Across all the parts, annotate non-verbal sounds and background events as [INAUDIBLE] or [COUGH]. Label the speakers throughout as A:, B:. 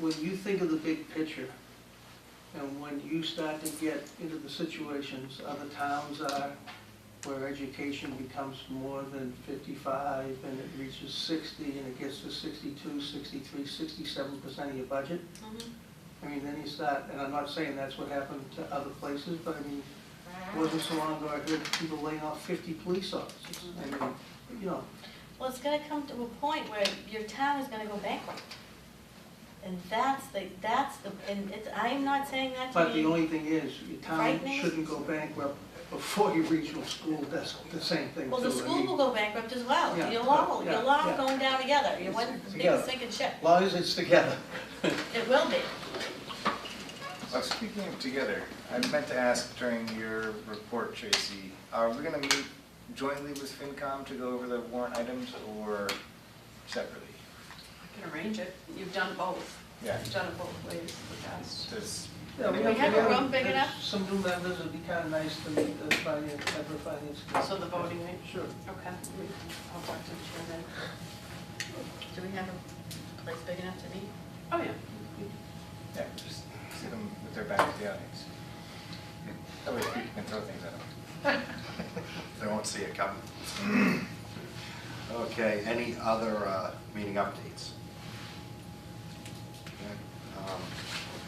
A: when you think of the big picture, and when you start to get into the situations other towns are, where education becomes more than fifty-five, and it reaches sixty, and it gets to 62, 63, 67 percent of your budget, I mean, then you start, and I'm not saying that's what happened to other places, but I mean,
B: Mm-hmm.
A: it wasn't so long ago, I heard people laying off fifty police officers. I mean, you know,
B: Well, it's gonna come to a point where your town is gonna go bankrupt. And that's the, that's the, and it's, I'm not saying that to
A: But
B: be.
A: the only thing is, your town
B: Frightening?
A: shouldn't go bankrupt before your regional school does the same thing.
B: Well, the
A: too. I
B: school
A: mean,
B: will go bankrupt as well.
A: Yeah,
B: You'll all,
A: yeah,
B: you'll all
A: yeah.
B: going down together. You're one big
A: Together.
B: sinking ship.
A: As long as it's together.
B: It will be.
C: Well, speaking of together, I meant to ask during your report, Tracy, are we gonna meet jointly with FinCom to go over the warrant items or separately?
D: I can arrange it. You've done both.
C: Yeah.
D: You've done it both ways in the past.
C: Does,
A: Yeah,
C: We have
B: a room big
A: there's
B: enough?
A: Some new members, it'd be kind of nice to meet the finance, member finance. committee.
D: So the voting, right?
A: Sure.
D: Okay. I'll talk to the chair then.
B: Do we have a place big enough to meet?
D: Oh, yeah.
C: yeah, just sit them with their back to the audience. That way people can throw things at them.
E: [LAUGHS] They won't see it coming. Okay, any other uh, meeting updates? Okay, um,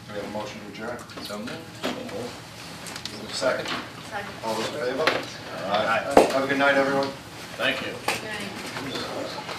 E: Do we have a motion to adjourn?
C: So moved.
E: Is there a Second.
B: Second.
E: All those in favor? All right. Have a good night, everyone.
F: Thank you.
B: Right.